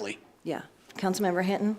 Lee? Yeah. Councilmember Hinton?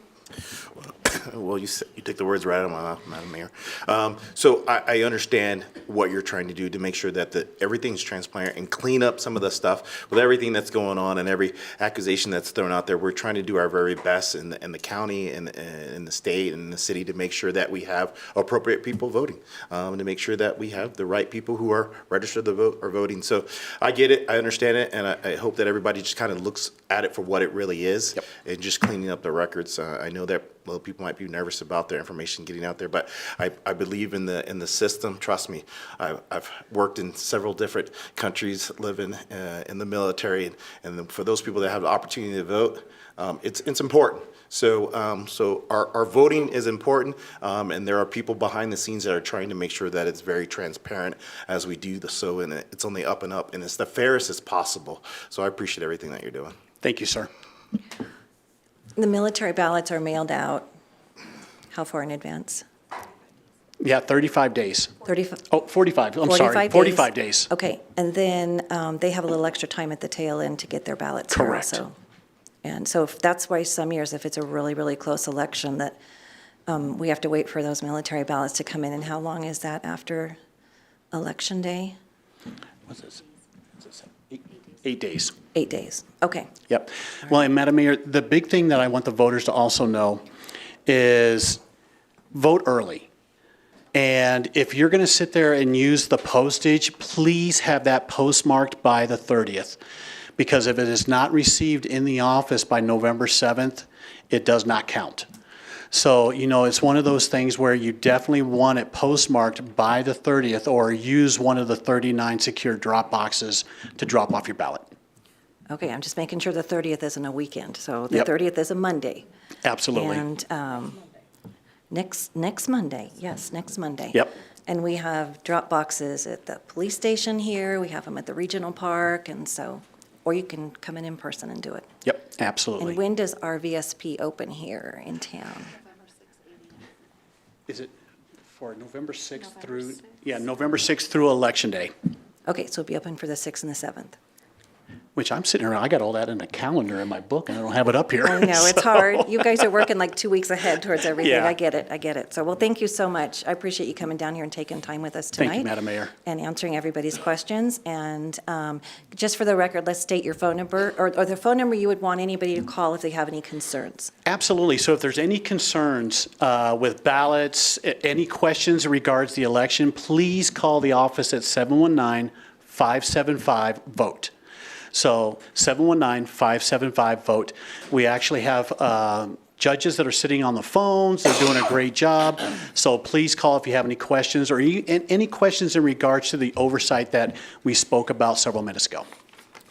Well, you said, you took the words right out of my mouth, Madam Mayor. Um, so I, I understand what you're trying to do to make sure that the, everything's transparent and clean up some of the stuff with everything that's going on and every accusation that's thrown out there. We're trying to do our very best in the, in the county and, and the state and the city to make sure that we have appropriate people voting. Um, to make sure that we have the right people who are registered to vote are voting. So I get it, I understand it, and I, I hope that everybody just kind of looks at it for what it really is. And just cleaning up the records. Uh, I know that, well, people might be nervous about their information getting out there, but I, I believe in the, in the system. Trust me. I, I've worked in several different countries, living, uh, in the military. And then for those people that have the opportunity to vote, um, it's, it's important. So, um, so our, our voting is important, um, and there are people behind the scenes that are trying to make sure that it's very transparent as we do the so, and it- it's only up and up, and it's the fairest as possible. So I appreciate everything that you're doing. Thank you, sir. The military ballots are mailed out how far in advance? Yeah, 35 days. 35? Oh, 45, I'm sorry. 45 days. Okay, and then um, they have a little extra time at the tail end to get their ballots here Correct. also. And so if- that's why some years, if it's a really, really close election, that um, we have to wait for those military ballots to come in. And how long is that after Election Day? What's this? What's this? Eight- Eight days. Eight days. Okay. Yep. Well, and Madam Mayor, the big thing that I want the voters to also know is vote early. And if you're going to sit there and use the postage, please have that postmarked by the 30th. Because if it is not received in the office by November 7th, it does not count. So, you know, it's one of those things where you definitely want it postmarked by the 30th or use one of the 39 secure drop boxes to drop off your ballot. Okay, I'm just making sure the 30th isn't a weekend. So the Yep. 30th is a Monday. Absolutely. And um, next, next Monday, yes, next Monday. Yep. And we have drop boxes at the police station here, we have them at the regional park, and so, or you can come in in person and do it. Yep, And absolutely. when does RVSP open here in town? Is it for November 6th through, yeah, November 6th through Election Day, Okay, so it'll be open for the 6th and the 7th. which I'm sitting around, I got all that in a calendar in my book and I don't have it up here. I know, it's So- hard. You guys are working like two weeks ahead towards everything. Yeah. I get it, I get it. So, well, thank you so much. I appreciate you coming down here and taking time with us tonight. Thank you, Madam Mayor. And answering everybody's questions. And um, just for the record, let's state your phone number, or or the phone number you would want anybody to call if they have any concerns. Absolutely. So if there's any concerns uh, with ballots, a- any questions in regards to the election, please call the office at 719-575-VOTE. So 719-575-VOTE. We actually have um, judges that are sitting on the phones. They're doing a great job. So please call if you have any questions or you- and any questions in regards to the oversight that we spoke about several minutes ago.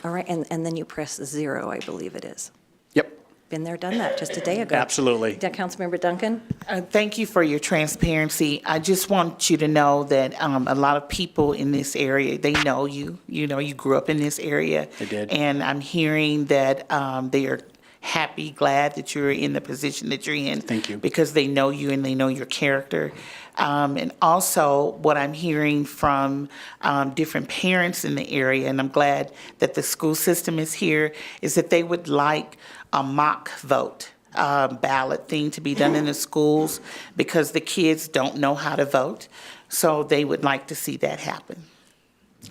All right, and, and then you press zero, I believe it is. Yep. Been there, done that, just a day ago. Absolutely. Yeah, Councilmember Duncan? Uh, Thank you for your transparency. I just want you to know that um, a lot of people in this area, they know you. You know, you grew up in this area. I did. And I'm hearing that um, they are happy, glad that you're in the position that you're in. Thank you. Because they know you and they know your character. Um, And also, what I'm hearing from um, different parents in the area, and I'm glad that the school system is here, is that they would like a mock vote uh, ballot thing to be done in the schools because the kids don't know how to vote. So they would like to see that happen.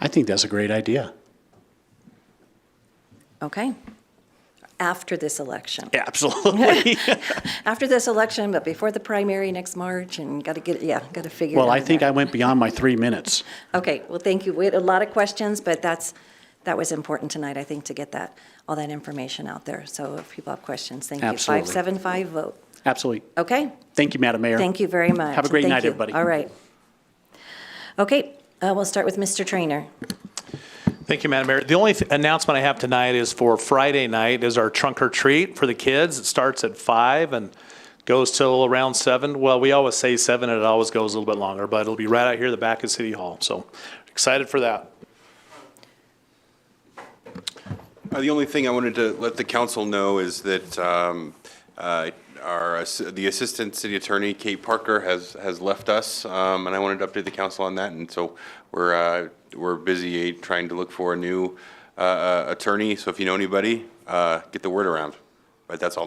I think that's a great idea. Okay. After this election. Absolutely. After this election, but before the primary next March, and got to get, yeah, got to figure it out. Well, I think I went beyond my three minutes. Okay, well, thank you. We had a lot of questions, but that's, that was important tonight, I think, to get that, all that information out there. So if people have questions, thank you. Absolutely. 575 vote. Absolutely. Okay, Thank you, Madam Mayor. thank you very much. Have a great Thank night, you. everybody. All right. Okay, uh, we'll start with Mr. Trainer. Thank you, Madam Mayor. The only th- announcement I have tonight is for Friday night is our trunk or treat for the kids. It starts at five and goes till around seven. Well, we always say seven, and it always goes a little bit longer, but it'll be right out here at the back of City Hall. So excited for that. Uh, The only thing I wanted to let the council know is that um, uh, our, ass- the Assistant City Attorney, Kate Parker, has, has left us, um, and I wanted to update the council on that, and so we're, uh, we're busy trying to look for a new uh, uh, attorney, so if you know anybody, uh, get the word around. But that's all